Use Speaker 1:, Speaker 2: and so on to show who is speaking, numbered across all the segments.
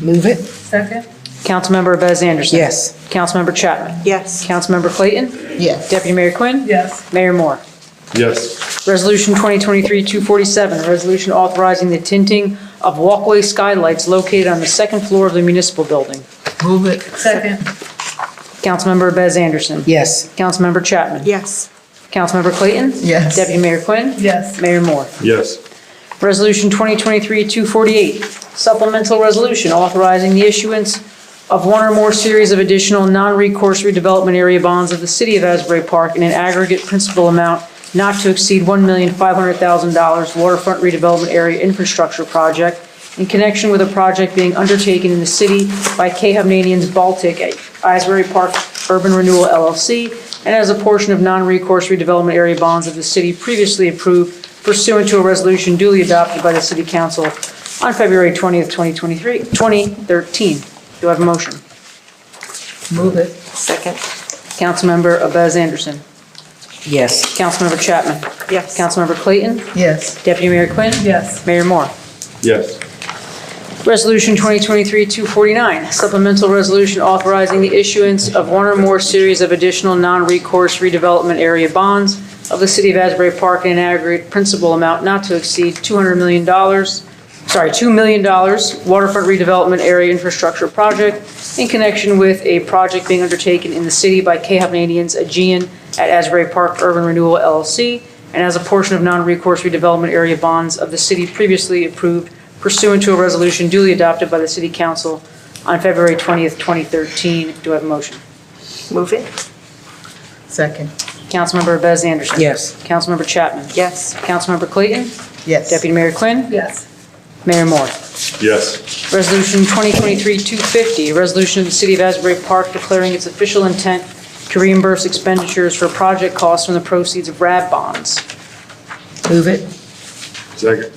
Speaker 1: Move it.
Speaker 2: Second?
Speaker 3: Councilmember Bez Anderson.
Speaker 1: Yes.
Speaker 3: Councilmember Chapman.
Speaker 4: Yes.
Speaker 3: Councilmember Clayton.
Speaker 1: Yes.
Speaker 3: Deputy Mayor Quinn.
Speaker 2: Yes.
Speaker 3: Mayor Moore.
Speaker 5: Yes.
Speaker 3: Resolution 2023-247, a resolution authorizing the tinting of walkway skylights located on the second floor of the municipal building.
Speaker 1: Move it.
Speaker 2: Second?
Speaker 3: Councilmember Bez Anderson.
Speaker 1: Yes.
Speaker 3: Councilmember Chapman.
Speaker 4: Yes.
Speaker 3: Councilmember Clayton.
Speaker 1: Yes.
Speaker 3: Deputy Mayor Quinn.
Speaker 2: Yes.
Speaker 3: Mayor Moore.
Speaker 5: Yes.
Speaker 3: Resolution 2023-248, supplemental resolution authorizing the issuance of one or more series of additional non-recourse redevelopment area bonds of the city of Asbury Park in an aggregate principal amount not to exceed $1,500,000 waterfront redevelopment area infrastructure project in connection with a project being undertaken in the city by Khamenean's Baltic at Asbury Park Urban Renewal LLC, and as a portion of non-recourse redevelopment area bonds of the city previously approved pursuant to a resolution duly adopted by the City Council on February 20th, 2023, 2013. Do I have a motion?
Speaker 1: Move it.
Speaker 4: Second.
Speaker 3: Councilmember Abez Anderson.
Speaker 1: Yes.
Speaker 3: Councilmember Chapman.
Speaker 4: Yes.
Speaker 3: Councilmember Clayton.
Speaker 1: Yes.
Speaker 3: Deputy Mayor Quinn.
Speaker 2: Yes.
Speaker 3: Mayor Moore.
Speaker 5: Yes.
Speaker 3: Resolution 2023-249, supplemental resolution authorizing the issuance of one or more series of additional non-recourse redevelopment area bonds of the City of Asbury Park in an aggregate principal amount not to exceed $200 million, sorry, $2 million waterfront redevelopment area infrastructure project in connection with a project being undertaken in the city by Khamenean's Aegean at Asbury Park Urban Renewal LLC, and as a portion of non-recourse redevelopment area bonds of the city previously approved pursuant to a resolution duly adopted by the City Council on February 20th, 2013. Do I have a motion?
Speaker 4: Move it.
Speaker 1: Second.
Speaker 3: Councilmember Bez Anderson.
Speaker 1: Yes.
Speaker 3: Councilmember Chapman.
Speaker 4: Yes.
Speaker 3: Councilmember Clayton.
Speaker 1: Yes.
Speaker 3: Deputy Mayor Quinn.
Speaker 2: Yes.
Speaker 3: Mayor Moore.
Speaker 5: Yes.
Speaker 3: Resolution 2023-250, a resolution of the City of Asbury Park declaring its official intent to reimburse expenditures for project costs from the proceeds of RAB bonds.
Speaker 1: Move it.
Speaker 5: Second.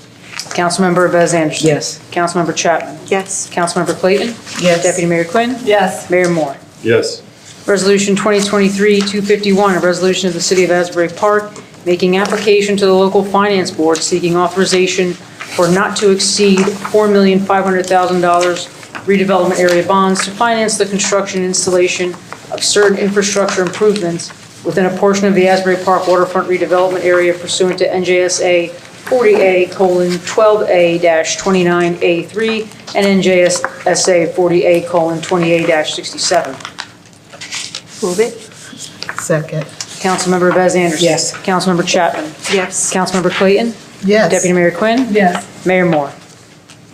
Speaker 3: Councilmember Bez Anderson.
Speaker 1: Yes.
Speaker 3: Councilmember Chapman.
Speaker 4: Yes.
Speaker 3: Councilmember Clayton.
Speaker 1: Yes.
Speaker 3: Deputy Mayor Quinn.
Speaker 2: Yes.
Speaker 3: Mayor Moore.
Speaker 5: Yes.
Speaker 3: Resolution 2023-251, a resolution of the City of Asbury Park making application to the local finance board seeking authorization for not to exceed $4,500,000 redevelopment area bonds to finance the construction and installation of certain infrastructure improvements within a portion of the Asbury Park waterfront redevelopment area pursuant to NJSA 40A:12A-29A3 and NJSA 40A:28-67.
Speaker 4: Move it.
Speaker 1: Second.
Speaker 3: Councilmember Bez Anderson.
Speaker 1: Yes.
Speaker 3: Councilmember Chapman.
Speaker 4: Yes.
Speaker 3: Councilmember Clayton.
Speaker 1: Yes.
Speaker 3: Deputy Mayor Quinn.
Speaker 2: Yes.
Speaker 3: Mayor Moore.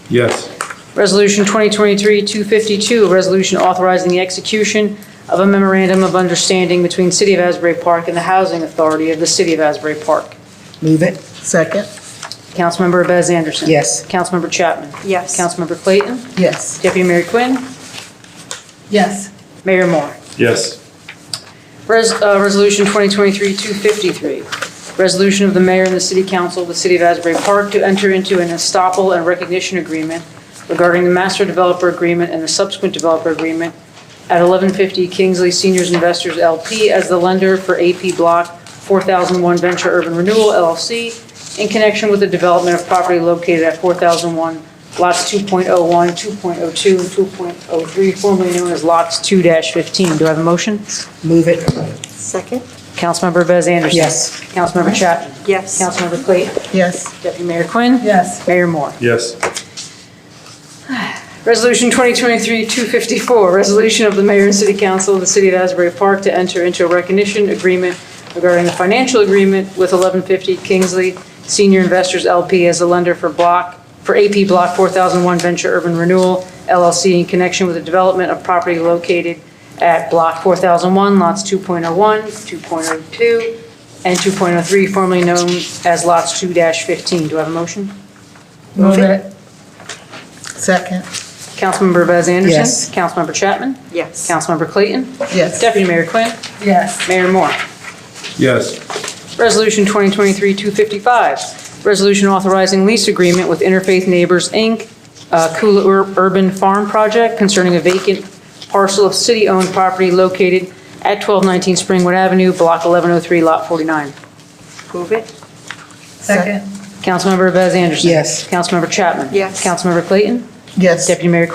Speaker 5: Yes.
Speaker 3: Resolution 2023-252, a resolution authorizing the execution of a memorandum of understanding between City of Asbury Park and the Housing Authority of the City of Asbury Park.
Speaker 1: Move it. Second.
Speaker 3: Councilmember Bez Anderson.
Speaker 1: Yes.
Speaker 3: Councilmember Chapman.
Speaker 4: Yes.
Speaker 3: Councilmember Clayton.
Speaker 1: Yes.
Speaker 3: Deputy Mayor Quinn.
Speaker 2: Yes.
Speaker 3: Mayor Moore.
Speaker 5: Yes.
Speaker 3: Res- uh, Resolution 2023-253, resolution of the mayor and the city council of the city of Asbury Park to enter into an estoppel and recognition agreement regarding the master developer agreement and the subsequent developer agreement at 1150 Kingsley Seniors Investors LP as the lender for AP Block 4001 Venture Urban Renewal LLC in connection with the development of property located at 4001 lots 2.01, 2.02, and 2.03, formerly known as lots 2-15. Do I have a motion?
Speaker 1: Move it.
Speaker 4: Second.
Speaker 3: Councilmember Bez Anderson.
Speaker 1: Yes.
Speaker 3: Councilmember Chapman.
Speaker 4: Yes.
Speaker 3: Councilmember Clayton.
Speaker 1: Yes.
Speaker 3: Deputy Mayor Quinn.
Speaker 2: Yes.
Speaker 3: Mayor Moore.
Speaker 5: Yes.
Speaker 3: Resolution 2023-254, resolution of the mayor and city council of the city of Asbury Park to enter into a recognition agreement regarding the financial agreement with 1150 Kingsley Senior Investors LP as a lender for block, for AP Block 4001 Venture Urban Renewal LLC in connection with the development of property located at Block 4001, lots 2.01, 2.02, and 2.03, formerly known as lots 2-15. Do I have a motion?
Speaker 1: Move it. Second.
Speaker 3: Councilmember Bez Anderson.
Speaker 1: Yes.
Speaker 3: Councilmember Chapman.
Speaker 4: Yes.
Speaker 3: Councilmember Clayton.
Speaker 1: Yes.
Speaker 3: Deputy Mayor Quinn.
Speaker 2: Yes.
Speaker 3: Mayor Moore.
Speaker 5: Yes.
Speaker 3: Resolution 2023-255, resolution authorizing lease agreement with Interfaith Neighbors, Inc., uh, Kula Ur- Urban Farm Project concerning a vacant parcel of city-owned property located at 1219 Springwood Avenue, Block 1103, Lot 49.
Speaker 4: Move it.
Speaker 2: Second?
Speaker 3: Councilmember Bez Anderson.
Speaker 1: Yes.
Speaker 3: Councilmember Chapman.
Speaker 4: Yes.
Speaker 3: Councilmember Clayton.
Speaker 1: Yes.
Speaker 3: Deputy Mayor